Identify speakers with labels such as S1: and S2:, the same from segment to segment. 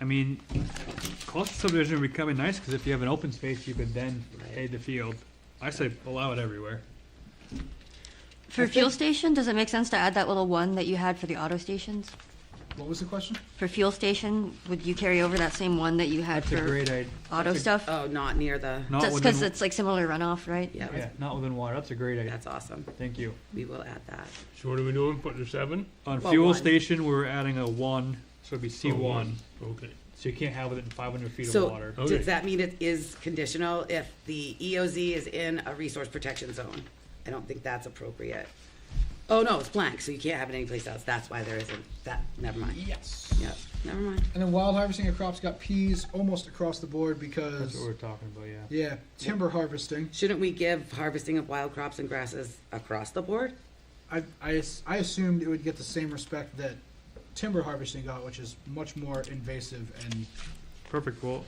S1: I mean, cluster subdivision would be kind of nice, because if you have an open space, you could then
S2: Right.
S1: pay the field. I say allow it everywhere.
S2: I
S3: For
S2: think-
S3: fuel station, does it make sense to add that little one that you had for the auto stations?
S4: What was the question?
S3: For fuel station, would you carry over that same one that you had
S1: That's a
S3: for
S1: great idea.
S3: auto
S1: that's a- uh,
S3: stuff?
S2: Oh, not near the,
S1: Not
S3: Just
S1: within-
S3: because it's like similar runoff, right?
S2: yeah,
S1: Yeah, not within water, that's a great idea,
S2: that's awesome.
S1: thank you.
S2: We will add that.
S5: So what are we doing, putting a seven?
S1: On
S2: Well,
S1: fuel
S2: one.
S1: station, we're adding a one, so it'd be C
S5: Oh,
S1: one,
S5: Okay.
S1: so you can't have it in five hundred feet of
S2: So,
S1: water. Oh,
S5: Okay.
S2: does that mean it is conditional if the EOZ is in a resource protection zone? I don't think that's appropriate. Oh, no, it's blank, so you can't have it anyplace else, that's why there isn't, that, never mind.
S4: Yes.
S2: Yep, never mind.
S4: And then wild harvesting of crops got peas almost across the board
S1: That's
S4: because,
S1: what we're talking about, yeah.
S4: yeah, timber harvesting.
S2: Shouldn't we give harvesting of wild crops and grasses across the board?
S4: I, I, as- I assumed it would get the same respect that timber harvesting got, which is much more invasive. And
S1: Perfect, well,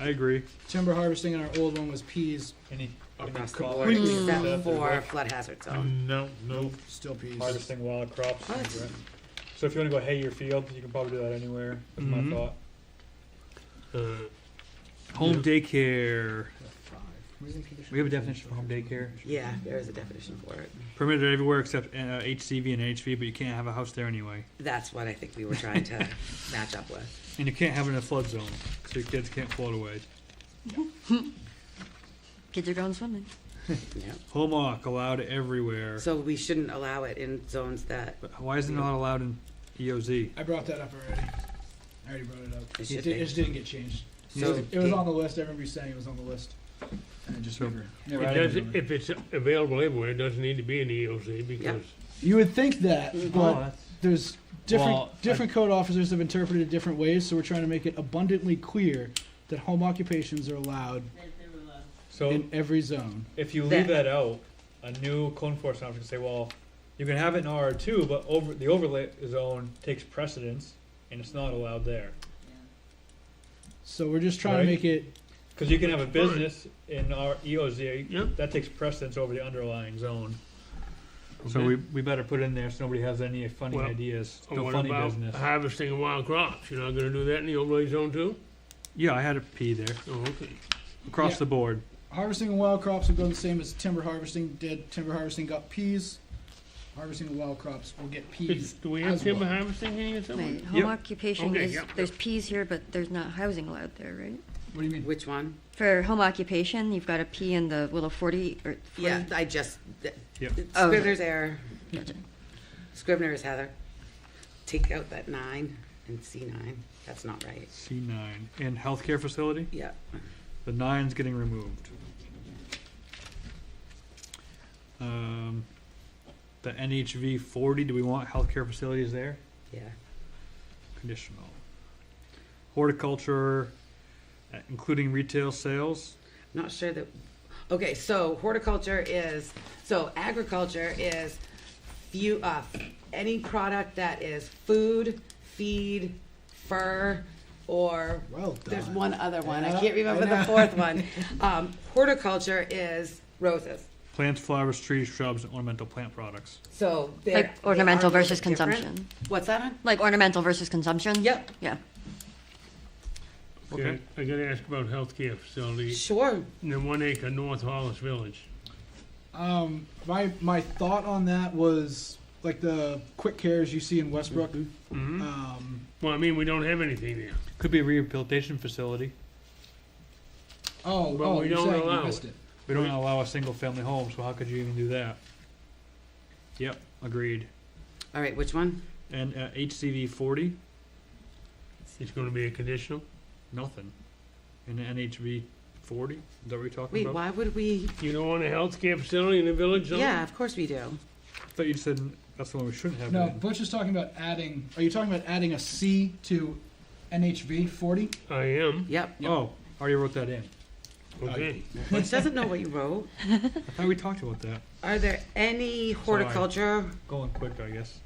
S1: I agree.
S4: timber harvesting in our old one was peas,
S1: Any,
S2: Across the board, except for flood hazard zone.
S5: No, no.
S4: still peas.
S1: harvesting wild crops.
S2: What? right.
S1: So if you wanna go hay your field, you can probably do that anywhere, is my
S5: Mhm.
S1: thought.
S5: Uh,
S1: Home daycare,
S4: Where's the
S1: we have a definition for home daycare,
S2: Yeah, there is a definition for it.
S1: permitted everywhere except, uh, HCV and HV, but you can't have a house there anyway.
S2: That's what I think we were trying to match up with.
S1: And you can't have it in a flood zone, so your kids can't float away.
S3: Kids are going swimming.
S2: Yep.
S1: Home awk allowed everywhere,
S2: So we shouldn't allow it in zones that
S1: but why is it not allowed in E EOZ?
S4: I brought that up already. I already brought it up.
S2: It
S4: It,
S2: should
S4: di-
S2: be.
S4: it just didn't get changed.
S2: So-
S4: it was on the list. I remember you saying it was on the list. And it just
S1: So-
S4: never,
S5: It
S4: never
S5: does,
S4: happened.
S5: if it's available everywhere, it doesn't need to be in the EOC because
S4: You would think that, but there's different
S1: Mm-hmm. Well, I-
S4: different code officers have interpreted it different ways, so we're trying to make it abundantly clear that home occupations are allowed
S1: So
S4: in every zone.
S1: if you
S2: That-
S1: leave that out, a new code enforcement officer can say, well, you can have it in R two, but over, the overlay zone takes precedence and it's not allowed there.
S4: So we're just trying
S1: Right.
S4: to make it
S1: Cause you can have a business in our EOZ,
S5: Yep.
S1: that takes precedence over the underlying zone. So
S5: Okay.
S1: we, we better put in there so nobody has any funny
S5: Well,
S1: ideas,
S5: Oh,
S1: no
S5: what
S1: funny
S5: about
S1: business.
S5: Harvesting of wild crops, you're not gonna do that in the overlay zone too?
S1: Yeah, I had a P there,
S5: Oh, okay.
S1: across
S4: Yeah.
S1: the board.
S4: harvesting of wild crops will go the same as timber harvesting did. Timber harvesting got peas. Harvesting of wild crops will get
S5: It's-
S4: peas.
S5: Do we have
S4: as
S5: timber
S4: well.
S5: harvesting in here
S3: Right,
S5: somewhere?
S3: home
S1: Yep.
S3: occupation
S5: Okay,
S3: is,
S5: yep,
S3: there's peas here, but there's not housing allowed there, right?
S4: What do you mean?
S2: Which one?
S3: For home occupation, you've got a P in the little forty or
S2: Yeah,
S3: forty.
S2: I just, th-
S1: Yep.
S3: Oh.
S2: Scrivener's error.
S3: Gotcha.
S2: Scrivener's Heather. Take out that nine and C nine. That's not right.
S1: C nine, and healthcare facility,
S2: Yeah.
S1: the nine's getting removed. Um, the NHV forty, do we want healthcare facilities there?
S2: Yeah.
S1: Conditional. Horticulture, uh, including retail sales,
S2: Not sure that, okay, so horticulture is, so agriculture is few, uh, any product that is food, feed, fur, or
S4: Well done.
S2: There's one other one. I
S4: Yeah,
S2: can't remember
S4: I
S2: the
S4: know.
S2: fourth one. Um, horticulture is roses.
S1: plants, flowers, trees, shrubs, and ornamental plant products.
S2: So they're.
S3: Like
S2: they are a
S3: ornamental
S2: little
S3: versus
S2: bit different.
S3: consumption.
S2: What's that on?
S3: Like ornamental versus consumption?
S2: Yep.
S3: Yeah.
S1: Okay.
S5: I gotta ask about healthcare facility,
S2: Sure.
S5: in the one acre North Hollis Village.
S4: Um, my my thought on that was like the quick cares you see in Westbrook.
S5: Mhm.
S4: Um,
S5: Well, I mean, we don't have anything there.
S1: Could be a rehabilitation facility.
S4: Oh,
S5: Well,
S4: oh,
S5: we
S4: you're
S5: don't
S4: saying
S5: allow
S4: you missed
S5: it.
S4: it.
S1: We don't allow a single family home, so how could you even do that? Yep, agreed.
S2: All right, which one?
S1: And uh, HCV forty,
S5: It's gonna be a conditional?
S1: nothing. And NHV forty, is that what you're talking
S2: Wait,
S1: about?
S2: why would we?
S5: You don't want a healthcare facility in the village zone?
S2: Yeah, of course we do.
S1: I thought you said that's the one we shouldn't have.
S4: No,
S1: it in.
S4: Butch is talking about adding. Are you talking about adding a C to NHV forty?
S5: I am,
S2: Yep.
S1: Oh, I already wrote that in.
S5: okay.
S2: Which doesn't know what you wrote.
S1: I thought we talked about that.
S2: Are there any horticulture?
S1: Going quick, I guess.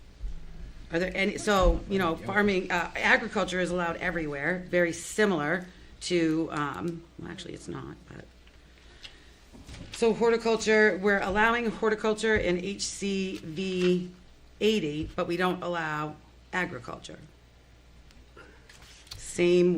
S2: Are there any, so, you know, farming, uh, agriculture is allowed everywhere, very similar to, um, well, actually, it's not, but. So horticulture, we're allowing horticulture in HCV eighty, but we don't allow agriculture. Same